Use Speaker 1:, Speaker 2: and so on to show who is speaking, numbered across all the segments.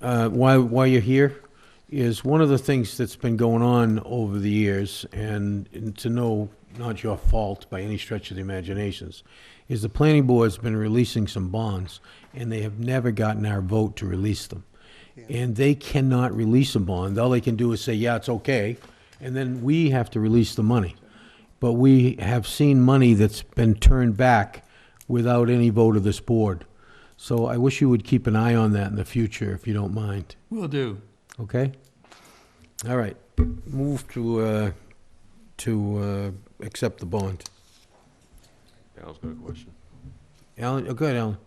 Speaker 1: uh, why, why you're here is one of the things that's been going on over the years, and and to know, not your fault by any stretch of the imaginations, is the planning board's been releasing some bonds, and they have never gotten our vote to release them. And they cannot release a bond. All they can do is say, yeah, it's okay, and then we have to release the money. But we have seen money that's been turned back without any vote of this board. So I wish you would keep an eye on that in the future, if you don't mind.
Speaker 2: Will do.
Speaker 1: Okay? All right. Move to, uh, to, uh, accept the bond.
Speaker 3: Al's got a question.
Speaker 1: Alan, oh, go ahead, Alan.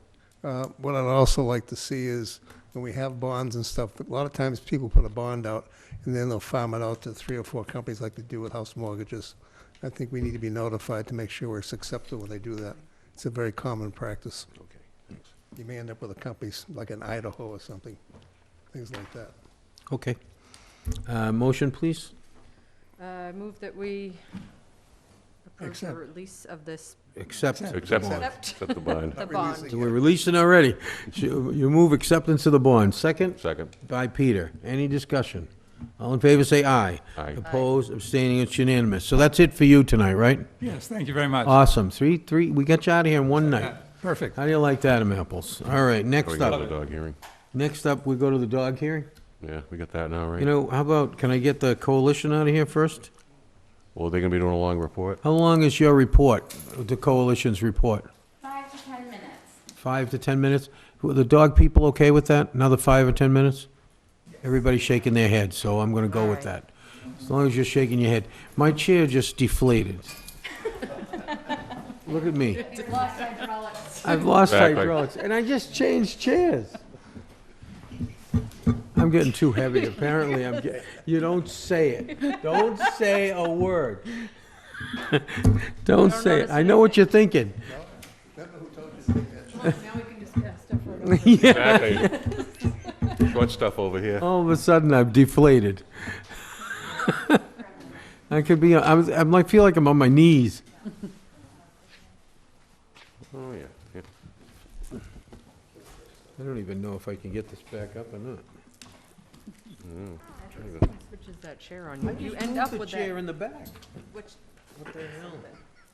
Speaker 4: Uh, What I'd also like to see is, when we have bonds and stuff, a lot of times people put a bond out, and then they'll farm it out to three or four companies like they do with house mortgages. I think we need to be notified to make sure we're accepted when they do that. It's a very common practice.
Speaker 3: Okay.
Speaker 4: You may end up with a company s- like in Idaho or something, things like that.
Speaker 1: Okay. Uh, motion, please?
Speaker 5: Uh, Move that we approve the
Speaker 4: Accept.
Speaker 5: release of this,
Speaker 1: Accept.
Speaker 3: Accept.
Speaker 1: the bond.
Speaker 5: Accept.
Speaker 3: Set the bind.
Speaker 5: the
Speaker 4: Not
Speaker 5: bond.
Speaker 4: releasing
Speaker 1: So we're
Speaker 4: it.
Speaker 1: releasing already. You you move acceptance of the bond. Second
Speaker 3: Second.
Speaker 1: by Peter. Any discussion? All in favor, say aye.
Speaker 3: Aye.
Speaker 1: Opposed, abstaining, it's unanimous. So that's it for you tonight, right?
Speaker 2: Yes, thank you very much.
Speaker 1: Awesome. Three, three, we got you out of here in one night.
Speaker 2: Perfect.
Speaker 1: How do you like that, Em apples? All right,
Speaker 3: We
Speaker 1: next
Speaker 3: got the
Speaker 1: up,
Speaker 3: dog hearing.
Speaker 1: next up, we go to the dog hearing?
Speaker 3: Yeah, we got that now,
Speaker 1: You
Speaker 3: right?
Speaker 1: know, how about, can I get the coalition out of here first?
Speaker 3: Well, they're gonna be doing a long report.
Speaker 1: How long is your report, the coalition's report?
Speaker 6: Five to 10 minutes.
Speaker 1: Five to 10 minutes? Were the dog people okay with that? Another five or 10 minutes? Everybody's shaking their head, so I'm going to go with
Speaker 5: All right.
Speaker 1: that. As long as you're shaking your head. My chair just deflated. Look at me.
Speaker 6: Lost hydraulics.
Speaker 1: I've lost
Speaker 3: Exactly.
Speaker 1: hydraulics, and I just changed chairs. I'm getting too heavy, apparently I'm getting, you don't say it. Don't say a word. Don't say it. I know what you're thinking.
Speaker 5: Now we can discuss stuff.
Speaker 3: Exactly. Short stuff over here.
Speaker 1: All of a sudden, I'm deflated. I could be, I'm, I'm like, feel like I'm on my knees.
Speaker 3: Oh, yeah. yeah.
Speaker 1: I don't even know if I can get this back up or not.
Speaker 5: Switches that chair on you. You end up with
Speaker 1: the chair
Speaker 5: that,
Speaker 1: in the back.
Speaker 5: which,
Speaker 1: What the hell?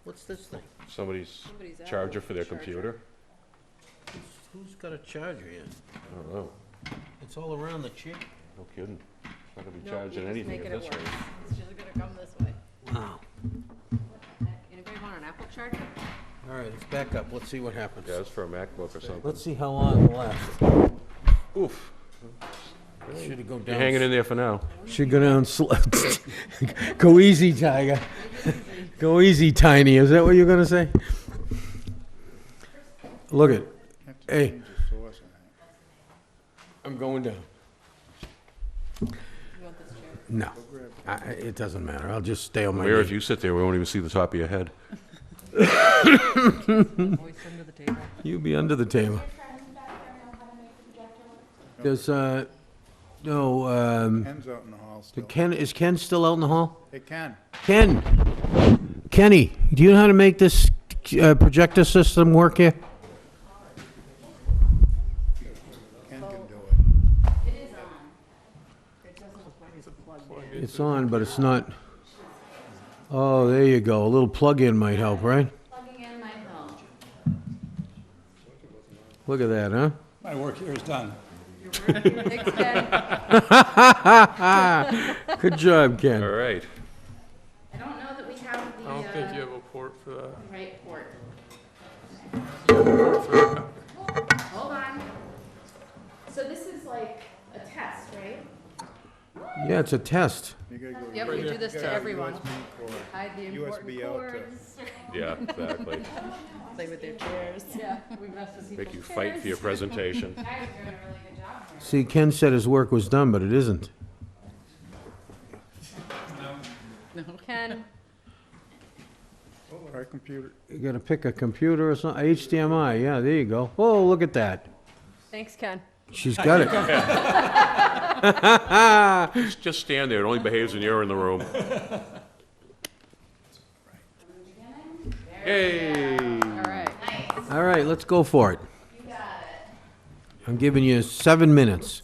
Speaker 1: What's this thing?
Speaker 3: Somebody's
Speaker 5: Somebody's out
Speaker 3: charger
Speaker 5: with
Speaker 3: for their
Speaker 5: charger.
Speaker 3: computer?
Speaker 1: Who's got a charger here?
Speaker 3: I don't know.
Speaker 1: It's all around the chair.
Speaker 3: No kidding. It's not gonna
Speaker 5: no,
Speaker 3: be
Speaker 5: we
Speaker 3: charging
Speaker 5: just
Speaker 3: anything
Speaker 5: make
Speaker 3: at
Speaker 5: it a
Speaker 3: this
Speaker 5: worse.
Speaker 3: rate.
Speaker 5: It's just gonna come this way.
Speaker 1: Wow.
Speaker 5: Anybody want an Apple charger?
Speaker 1: All right, it's back up. Let's see what happens.
Speaker 3: Yeah, it's for a MacBook or something.
Speaker 1: Let's see how long it lasts.
Speaker 3: Oof.
Speaker 1: Should it go
Speaker 3: You're hanging
Speaker 1: down?
Speaker 3: in there for now.
Speaker 1: Should go down slow. Go easy, Tiger. Go easy, Tiny. Is that what you're gonna say? Look it. Hey. I'm going down.
Speaker 5: You want this chair?
Speaker 1: No, I, I- it doesn't matter. I'll just stay on my
Speaker 3: Mayor, if
Speaker 1: knee.
Speaker 3: you sit there, we won't even see the top of your head.
Speaker 5: Always under the table.
Speaker 1: You'll be under the table. Does, uh, no, um,
Speaker 7: Ken's out in the hall still.
Speaker 1: Ken, is Ken still out in the hall?
Speaker 7: Hey, Ken.
Speaker 1: Ken, Kenny, do you know how to make this uh, projector system work here?
Speaker 7: Ken
Speaker 5: Oh.
Speaker 7: can do it.
Speaker 1: It's on, but it's not. Oh, there you go. A little plug-in might help, right?
Speaker 6: Plugging in my phone.
Speaker 1: Look at that, huh?
Speaker 2: My work here is done.
Speaker 5: Thanks, Ken.
Speaker 1: Good job,
Speaker 3: All
Speaker 1: Ken.
Speaker 3: right.
Speaker 6: I don't know that we have the.
Speaker 8: I don't think you
Speaker 6: uh,
Speaker 8: have a port for that.
Speaker 6: Right port. Hold on. So this is like a test, right?
Speaker 1: Yeah, it's a test.
Speaker 5: Yep, we do this to everyone. Hide the important
Speaker 7: USB out to-
Speaker 5: cords.
Speaker 3: Yeah, exactly.
Speaker 5: Play with their chairs. Yeah, we mess with
Speaker 3: Make you fight for your presentation.
Speaker 6: You guys are doing a really good job here.
Speaker 1: See, Ken said his work was done, but it isn't.
Speaker 5: people. Ken,
Speaker 7: Our computer.
Speaker 1: You gotta pick a computer or something. HDMI, yeah, there you go. Oh, look at that.
Speaker 5: thanks, Ken.
Speaker 1: She's got it.
Speaker 3: Just- Just stand there. It only behaves when you're in the room. Yay!
Speaker 5: All right.
Speaker 1: All right, let's go for it.
Speaker 6: You got it.
Speaker 1: I'm giving you seven minutes.